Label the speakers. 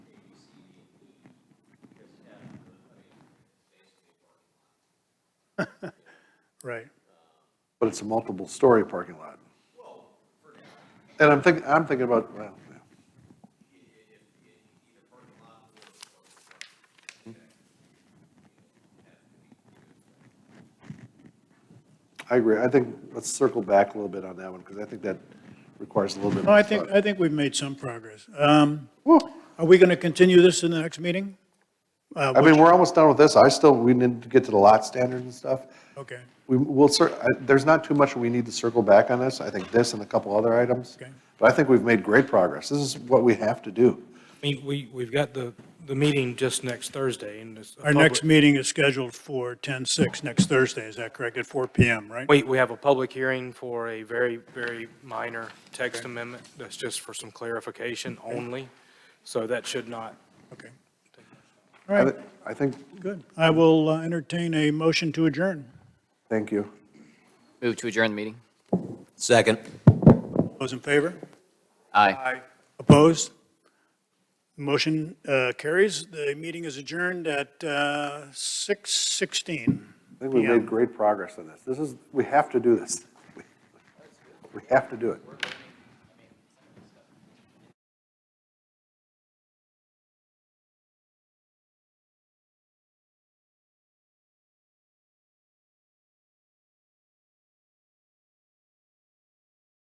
Speaker 1: Right.
Speaker 2: but it's a multiple-story parking lot. And I'm thinking, I'm thinking about, well, yeah. I agree. I think, let's circle back a little bit on that one, because I think that requires a little bit.
Speaker 1: No, I
Speaker 2: more
Speaker 1: think,
Speaker 2: thought.
Speaker 1: I think we've made some progress. Um, Are we going to continue this in the next meeting? Uh,
Speaker 2: I mean, we're almost done with this. I still, we need to get to the lot standards and stuff.
Speaker 1: Okay,
Speaker 2: We will, cer- I- there's not too much we need to circle back on this. I think this and a couple other items.
Speaker 1: Okay.
Speaker 2: But I think we've made great progress. This is what we have to do.
Speaker 3: I mean, we, we've got the, the meeting just next Thursday, and it's. a
Speaker 1: our next
Speaker 3: public-
Speaker 1: meeting is scheduled for 10/6 next Thursday, is that correct, at 4 PM, right?
Speaker 3: We, we have a public hearing for a very, very minor text amendment, that's just for some clarification only, so that should not.
Speaker 1: Okay. All
Speaker 2: I
Speaker 1: right,
Speaker 2: thi- I think,
Speaker 1: good. I will uh, entertain a motion to adjourn.
Speaker 2: thank you.
Speaker 4: Move to adjourn the meeting.
Speaker 5: Second.
Speaker 1: Those in favor?
Speaker 4: Aye.
Speaker 1: Opposed? Motion uh, carries. The meeting is adjourned at uh, 6:16.
Speaker 2: I think we've
Speaker 1: Yeah.
Speaker 2: made great progress on this. This is, we have to do this. We- We have to do it.